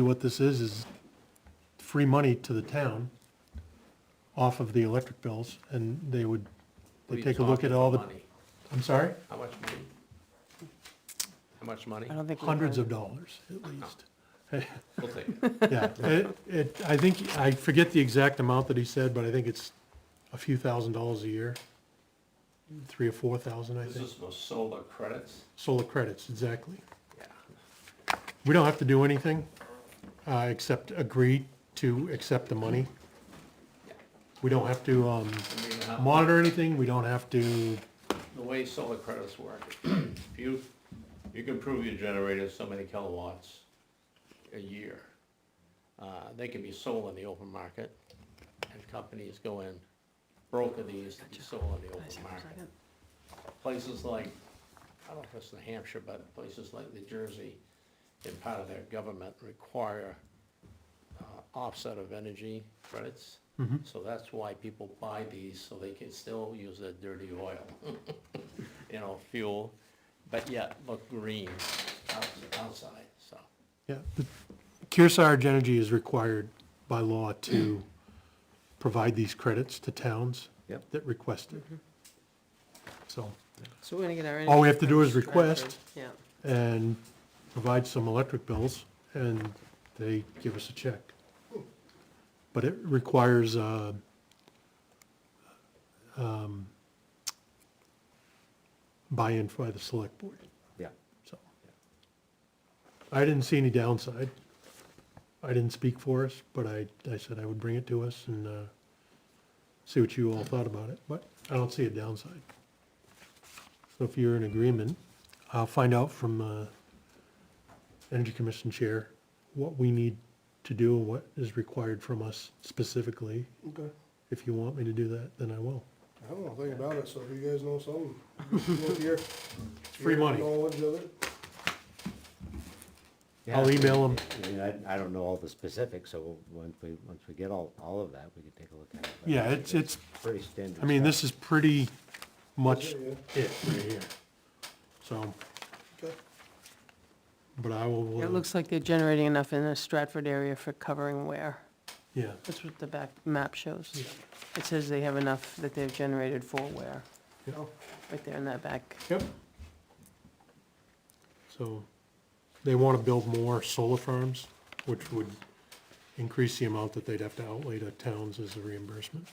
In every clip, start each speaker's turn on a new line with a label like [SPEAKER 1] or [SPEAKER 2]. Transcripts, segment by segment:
[SPEAKER 1] What this is, is free money to the town off of the electric bills, and they would,
[SPEAKER 2] What
[SPEAKER 1] they
[SPEAKER 2] are you
[SPEAKER 1] take a look
[SPEAKER 2] talking
[SPEAKER 1] at all the,
[SPEAKER 2] about money?
[SPEAKER 1] I'm sorry,
[SPEAKER 2] How much money? How much money?
[SPEAKER 3] I don't think.
[SPEAKER 1] hundreds of dollars at least.
[SPEAKER 2] We'll take it.
[SPEAKER 1] Yeah, it, it, I think, I forget the exact amount that he said, but I think it's a few thousand dollars a year. Three or four thousand, I
[SPEAKER 2] This
[SPEAKER 1] think.
[SPEAKER 2] is for solar credits?
[SPEAKER 1] Solar credits, exactly.
[SPEAKER 2] Yeah.
[SPEAKER 1] We don't have to do anything, uh, except agree to accept the money. We don't have to, um,
[SPEAKER 2] I mean, how-
[SPEAKER 1] monitor anything, we don't have to,
[SPEAKER 2] The way solar credits work, if you, you can prove your generator is so many kilowatts a year. Uh, They can be sold on the open market, and companies go in, broker these to be sold on the open market. Places like, I don't know if it's New Hampshire, but places like New Jersey, in part of their government, require uh, offset of energy credits. So that's why people buy these, so they can still use their dirty oil, you know, fuel, but yet look green outs- outside, so.
[SPEAKER 1] yeah. the- Kearsarge Energy is required by law to provide these credits to towns
[SPEAKER 2] Yep.
[SPEAKER 1] that request it. So,
[SPEAKER 3] So we're gonna get our.
[SPEAKER 1] All we have to do is
[SPEAKER 3] energy from
[SPEAKER 1] request.
[SPEAKER 3] Stratford. Yeah,
[SPEAKER 1] and provide some electric bills, and they give us a check. But it requires, uh, um, buy-in by the select board,
[SPEAKER 4] Yeah.
[SPEAKER 1] so. I didn't see any downside. I didn't speak for us, but I, I said I would bring it to us and, uh, see what you all thought about it, but I don't see a downside. So if you're in agreement, I'll find out from, uh, Energy Commission Chair what we need to do and what is required from us specifically.
[SPEAKER 5] Okay,
[SPEAKER 1] If you want me to do that, then I will.
[SPEAKER 5] I don't know a thing about it, so if you guys know something, look here.
[SPEAKER 1] free money.
[SPEAKER 5] Knowledge of it,
[SPEAKER 1] I'll email them.
[SPEAKER 4] I mean, I, I don't know all the specifics, so once we, once we get all, all of that, we can take a look at it. but
[SPEAKER 1] Yeah, it's, it's,
[SPEAKER 4] Pretty standard.
[SPEAKER 1] I mean,
[SPEAKER 4] stuff.
[SPEAKER 1] this is pretty much
[SPEAKER 5] Yeah,
[SPEAKER 1] it right here. So,
[SPEAKER 5] okay,
[SPEAKER 1] but I will,
[SPEAKER 3] it
[SPEAKER 1] uh,
[SPEAKER 3] looks like they're generating enough in the Stratford area for covering wear.
[SPEAKER 1] yeah,
[SPEAKER 3] That's what the back map shows. It says they have enough that they've generated for wear,
[SPEAKER 1] yeah.
[SPEAKER 3] right there in that back.
[SPEAKER 1] Yep. So they want to build more solar farms, which would increase the amount that they'd have to outlay to towns as a reimbursement.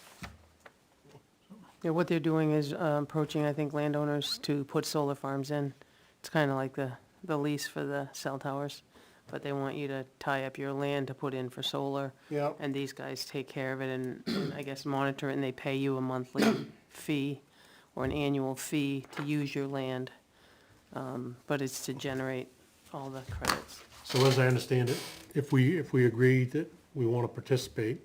[SPEAKER 3] Yeah, what they're doing is uh, approaching, I think, landowners to put solar farms in. It's kind of like the, the lease for the cell towers, but they want you to tie up your land to put in for solar.
[SPEAKER 5] yeah,
[SPEAKER 3] And these guys take care of it and, and I guess, monitor it, and they pay you a monthly fee or an annual fee to use your land. Um, But it's to generate all the credits.
[SPEAKER 1] So as I understand it, if we, if we agree that we want to participate,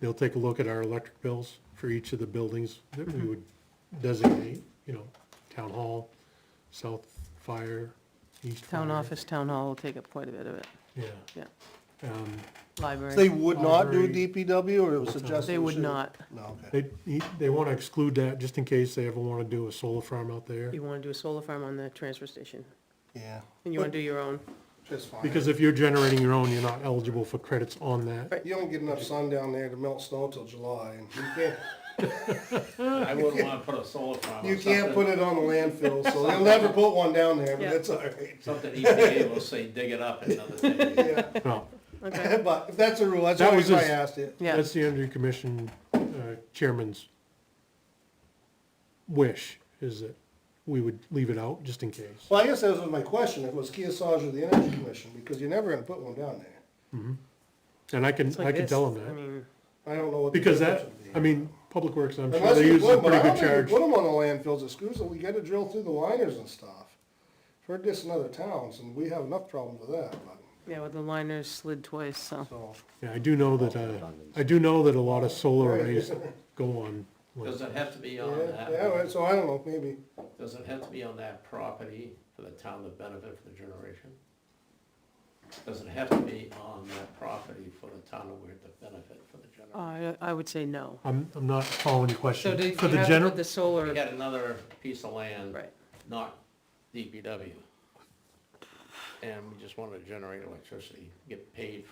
[SPEAKER 1] they'll take a look at our electric bills for each of the buildings that we
[SPEAKER 3] Mm-hmm.
[SPEAKER 1] would designate, you know, town hall, south fire, east fire.
[SPEAKER 3] Town office, town hall will take up quite a bit of it,
[SPEAKER 1] Yeah.
[SPEAKER 3] yeah.
[SPEAKER 1] Um,
[SPEAKER 3] Library.
[SPEAKER 5] They would not do
[SPEAKER 1] Library.
[SPEAKER 5] DPW, or it was suggested?
[SPEAKER 3] They
[SPEAKER 5] we
[SPEAKER 3] would
[SPEAKER 5] should-
[SPEAKER 3] not.
[SPEAKER 5] No, okay.
[SPEAKER 1] They, he- they want to exclude that just in case they ever want to do a solar farm out there.
[SPEAKER 3] You want to do a solar farm on the transfer station,
[SPEAKER 5] Yeah.
[SPEAKER 3] and you want to do your own.
[SPEAKER 5] Just fine.
[SPEAKER 1] Because if you're generating your own, you're not eligible for credits on that.
[SPEAKER 3] Right.
[SPEAKER 5] You don't get enough sun down there to melt snow till July, and you can't,
[SPEAKER 2] I wouldn't wanna put a solar farm
[SPEAKER 5] you
[SPEAKER 2] on
[SPEAKER 5] can't put
[SPEAKER 2] something,
[SPEAKER 5] it on the landfill, so they'll never put one down there, but
[SPEAKER 3] Yeah.
[SPEAKER 5] that's all right.
[SPEAKER 2] something EPA will say, dig it up another day.
[SPEAKER 5] Yeah,
[SPEAKER 1] No,
[SPEAKER 3] Okay,
[SPEAKER 5] but if that's a rule, that's
[SPEAKER 1] That
[SPEAKER 5] why
[SPEAKER 1] was
[SPEAKER 5] I
[SPEAKER 1] his-
[SPEAKER 5] asked it.
[SPEAKER 3] yeah,
[SPEAKER 1] that's the Energy Commission uh, Chairman's wish, is that we would leave it out just in case.
[SPEAKER 5] Well, I guess that was my question, if it was Kearsarge or the Energy Commission, because you're never gonna put one down there.
[SPEAKER 1] And I can,
[SPEAKER 3] it's
[SPEAKER 1] I
[SPEAKER 3] like
[SPEAKER 1] can
[SPEAKER 3] this.
[SPEAKER 1] tell
[SPEAKER 3] I
[SPEAKER 1] them that,
[SPEAKER 3] mean,
[SPEAKER 5] I don't know what. the
[SPEAKER 1] because
[SPEAKER 5] difference
[SPEAKER 1] that,
[SPEAKER 5] would be.
[SPEAKER 1] I mean, Public Works, I'm sure
[SPEAKER 5] Unless
[SPEAKER 1] they
[SPEAKER 5] you
[SPEAKER 1] use a
[SPEAKER 5] put, but
[SPEAKER 1] pretty
[SPEAKER 5] I
[SPEAKER 1] good
[SPEAKER 5] don't think you
[SPEAKER 1] charge.
[SPEAKER 5] put them on the landfills at Screwsville, we gotta drill through the liners and stuff. Heard this in other towns, and we have enough problems with that, but,
[SPEAKER 3] yeah, well, the liners slid twice, so.
[SPEAKER 5] so,
[SPEAKER 1] Yeah, I do know that, uh, I do know that a lot of solar arrays go on.
[SPEAKER 2] Does it have to be
[SPEAKER 5] yeah,
[SPEAKER 2] on that?
[SPEAKER 5] yeah, right, so I don't know, maybe,
[SPEAKER 2] Does it have to be on that property for the town to benefit for the generation? Does it have to be on that property for the town to to benefit for the generation?
[SPEAKER 3] I, I would say no.
[SPEAKER 1] I'm, I'm not following your
[SPEAKER 3] So
[SPEAKER 1] question.
[SPEAKER 3] do you
[SPEAKER 1] For the
[SPEAKER 3] have to
[SPEAKER 1] general.
[SPEAKER 3] put the
[SPEAKER 2] We
[SPEAKER 3] solar,
[SPEAKER 2] got another piece of land.
[SPEAKER 3] right,
[SPEAKER 2] not DPW. And we just wanted to generate electricity, get paid